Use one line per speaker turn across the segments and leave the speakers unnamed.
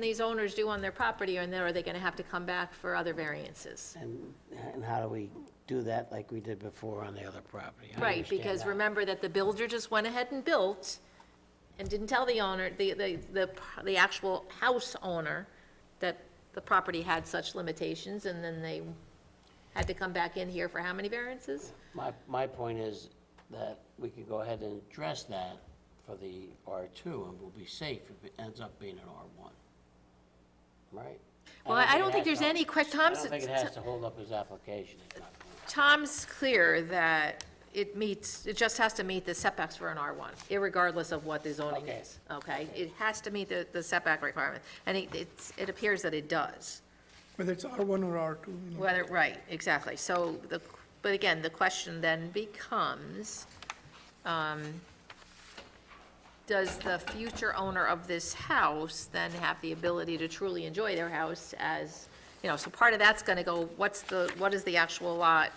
these owners do on their property, and then are they going to have to come back for other variances?
And, and how do we do that like we did before on the other property? I
Right,
understand
because
that.
remember that the builder just went ahead and built and didn't tell the owner, the, the, the, p- the actual house owner that the property had such limitations, and then they had to come back in here for how many variances?
My, my point is that we could go ahead and address that for the R2 and we'll be safe if it ends up being an R1. Right?
Well, I
it
don't think there's
has to-
any que-
I
Tom's-
don't think it has to hold up his application. is my point.
Tom's clear that it meets, it just has to meet the setbacks for an R1, irregardless of what the zoning
Okay.
is, okay? It has to meet the, the setback requirement, and it, it's, it appears that it does.
whether it's R1 or R2, you know.
Whether, right, exactly. So the, but again, the question then becomes, um, does the future owner of this house then have the ability to truly enjoy their house as, you know, so part of that's gonna go, what's the, what is the actual lot?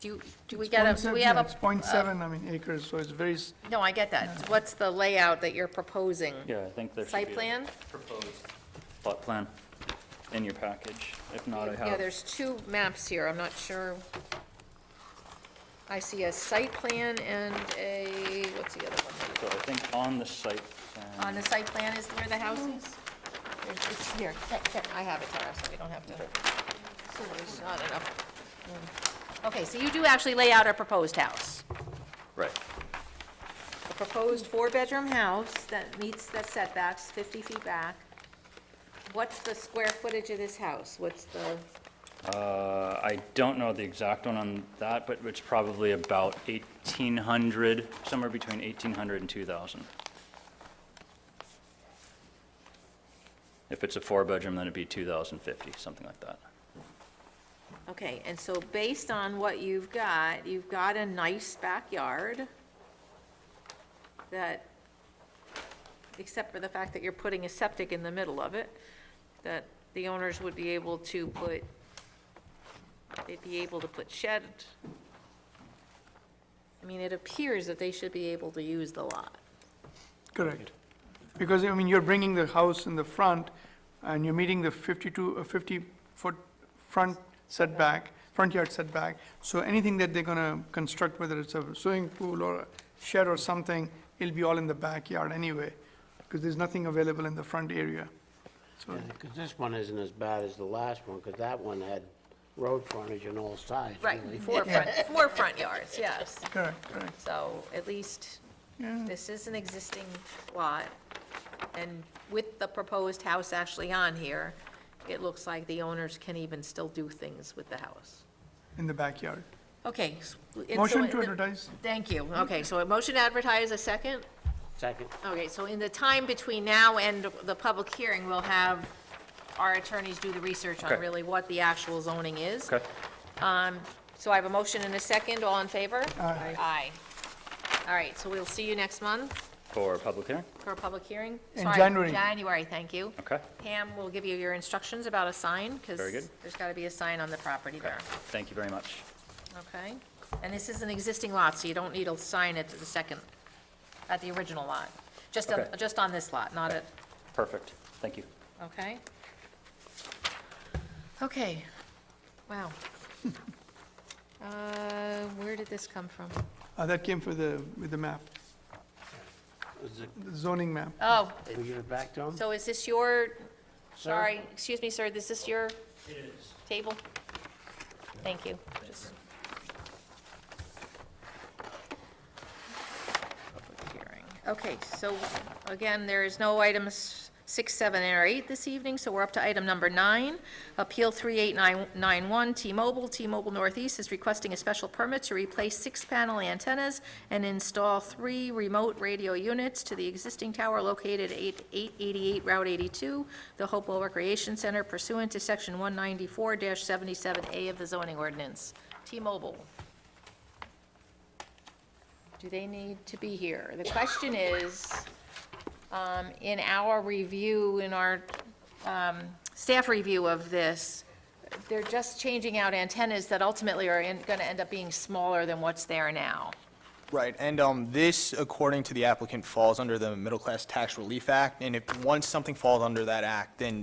Do you, do we get a,
Point
do we have
seven-
a? uh,
It's .7, I mean, acres, so it's very, s-
No, I get that. What's the layout that you're proposing?
Yeah, I think there should be.
Site
a
plan?
Proposed plot plan in your package. If not, I
Yeah,
have,
there's two maps here, I'm not sure. I see a site plan and a, what's the other one?
so I think on the site
On the
plan,
site plan is where the house is? There's- It's here, I have it, Tara, so we don't have to. So There's not enough. room. Okay, so you do actually lay out a proposed house,
right,
a proposed four-bedroom house that meets the setbacks, 50 feet back. What's the square footage of this house? What's the?
Uh, I don't know the exact one on that, but it's probably about 1,800, somewhere between 1,800 and 2,000. If it's a four-bedroom, then it'd be 2,050, something like that.
Okay, and so based on what you've got, you've got a nice backyard that, except for the fact that you're putting a septic in the middle of it, that the owners would be able to put, they'd be able to put shed. I mean, it appears that they should be able to use the lot.
correct. Because, I mean, you're bringing the house in the front, and you're meeting the 52, 50-foot front setback, front yard setback, so anything that they're gonna construct, whether it's a swimming pool or a shed or something, it'll be all in the backyard anyway, because there's nothing available in the front area. So,
Because this one isn't as bad as the last one, because that one had road frontage on all sides, really.
Four front, four front yards, yes.
correct, correct,
So at least
yeah.
This is an existing lot, and with the proposed house actually on here, it looks like the owners can even still do things with the house.
in the backyard.
Okay. s- and so
Motion
it-
to advertise.
Thank you. Okay, so a motion to advertise, a second?
Second,
Okay, so in the time between now and the public hearing, we'll have our attorneys do the research on
Okay.
really what the actual zoning is.
Okay?
So I have a motion and a second, all in favor?
Aye.
Aye. All right, so we'll see you next month
For public hearing?
for a public hearing?
In
Sorry,
January.
January, thank you.
Okay,
Pam will give you your instructions about a sign, because
Very good.
there's got to be a sign on the property there,
thank you very much.
okay? And this is an existing lot, so you don't need a sign at the second, at the original lot. Just, on-
Okay.
just on this lot, not at,
Perfect, thank you.
okay? Okay, wow. Uh, Where did this come from?
Uh, That came for the, with the map,
is it-
the zoning map.
Oh,
can we give it back to him?
so is this your,
sir?
sorry, excuse me, sir, is this your? It is. Table? Thank you. Just- Public hearing. Okay, so again, there is no items six, seven, or eight this evening, so we're up to item number nine. Appeal 38991, T-Mobile, T-Mobile Northeast is requesting a special permit to replace six panel antennas and install three remote radio units to the existing tower located at 888 Route 82, the Hopewell Recreation Center pursuant to Section 194-77A of the zoning ordinance. T-Mobile. Do they need to be here? The question is, um, in our review, in our um, staff review of this, they're just changing out antennas that ultimately are going to end up being smaller than what's there now.
Right, and um, this, according to the applicant, falls under the Middle Class Tax Relief Act, and if, once something falls under that act, then